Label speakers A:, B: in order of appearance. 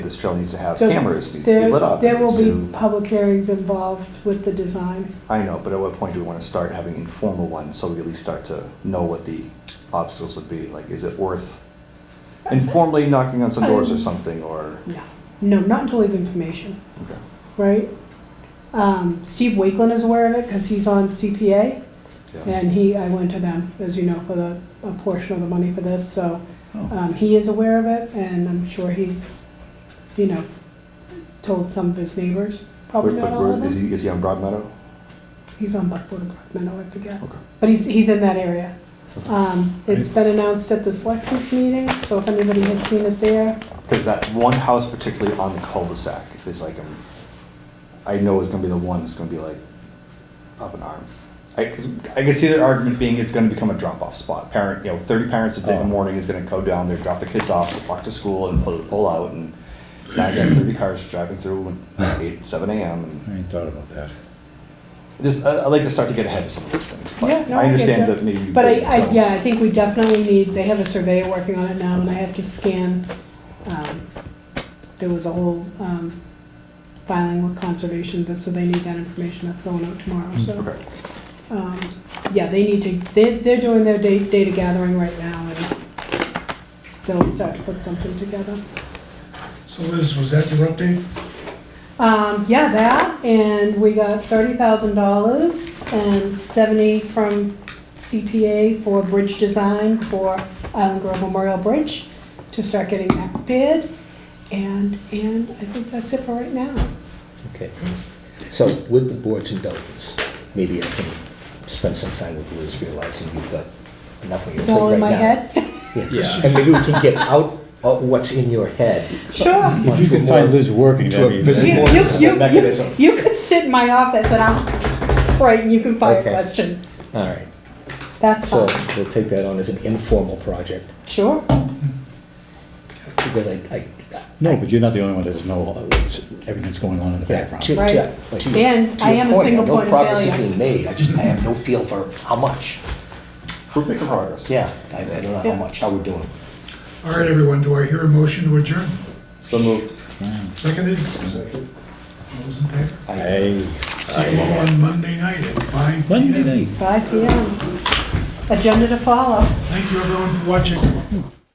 A: this trail needs to have
B: So
A: cameras, needs to
B: There-
A: be lit up.
B: There will
A: needs
B: be
A: to-
B: public hearings involved with the design.
A: I know, but at what point do we want to start having informal ones so we at least start to know what the obstacles would be? Like, is it worth informally knocking on some
B: Um,
A: doors or something, or?
B: No, no, not until we have information,
A: okay.
B: right? Um, Steve Wakeland is aware of it because he's on CPA
A: Yeah.
B: and he, I went to them, as you know, for the, a portion of the money for this, so.
A: Oh.
B: Um, he is aware of it and I'm sure he's, you know, told some of his neighbors, probably
A: But-
B: not
A: but
B: all
A: where-
B: of
A: Is
B: them.
A: he, is he on Broad Meadow?
B: He's on Buckboard or Brockmeadow, I forget.
A: Okay.
B: But he's, he's in that area. Um, it's been announced at the selectmen's meeting, so if anybody has seen it there,
A: Because that one house particularly on the cul-de-sac is like, um, I know is gonna be the one that's gonna be like up in arms. I, 'cause I can see their argument being it's gonna become a drop-off spot. Parent, you know, thirty parents a day in the
C: Oh.
A: morning is gonna go down there, drop the kids off, walk to school and pull, pull out and now you got thirty cars driving through at eight, seven AM and
C: I ain't thought about that.
A: just, I, I like to start to get ahead of some of those things. But
B: Yeah, no, I
A: I
B: get
A: understand
B: that.
A: that maybe. you
B: But I,
A: wouldn't,
B: I,
A: so-
B: yeah, I think we definitely need, they have a surveyor working on it now, and I have to scan. um, There was a whole um, filing with conservation, that- so they need that information, that's going out tomorrow, so.
A: Mm, Okay,
B: um, Yeah, they need to, they, they're doing their da- data gathering right now, and they'll start to put something together.
D: So Liz, was that your update?
B: Um, yeah, that, and we got thirty thousand dollars and seventy from CPA for bridge design for Island Grove Memorial Bridge to start getting that prepared. And, and I think that's it for right now.
E: Okay, so with the board's indulgence, maybe I can spend some time with Liz realizing you've got enough on your
B: It's
E: plate right now.
B: all in my head.
E: Yeah, and maybe we can get out uh, what's in your head.
B: Sure.
C: If you can find Liz working,
E: To a
C: that'd be.
E: visit-
B: You,
E: more
B: you,
E: of a
B: you, you,
E: mechanism.
B: you could sit in my office and I'll, right, and you can fire
E: Okay.
B: questions.
E: All right,
B: That's
E: so
B: fine.
E: we'll take that on as an informal project,
B: Sure.
E: because I, I,
C: No, but you're not the only one that doesn't know uh, everything that's going on in the
E: yeah, to,
C: background.
E: to,
B: Right.
E: to-
B: And
E: to
B: I
E: your
B: am a
E: point,
B: single point of
E: No progress is
B: failure.
E: being made, I just, I have no feel for how much,
A: we're making progress.
E: yeah, I, I don't know
B: Yeah.
E: how much, how we're doing.
D: All right, everyone, do I hear a motion to adjourn?
A: So moved.
D: Seconded? Second. All those in favor?
C: Hey,
D: See you all on Monday night at five.
C: Monday night.
B: Five PM. Agenda to follow.
D: Thank you, everyone, for watching.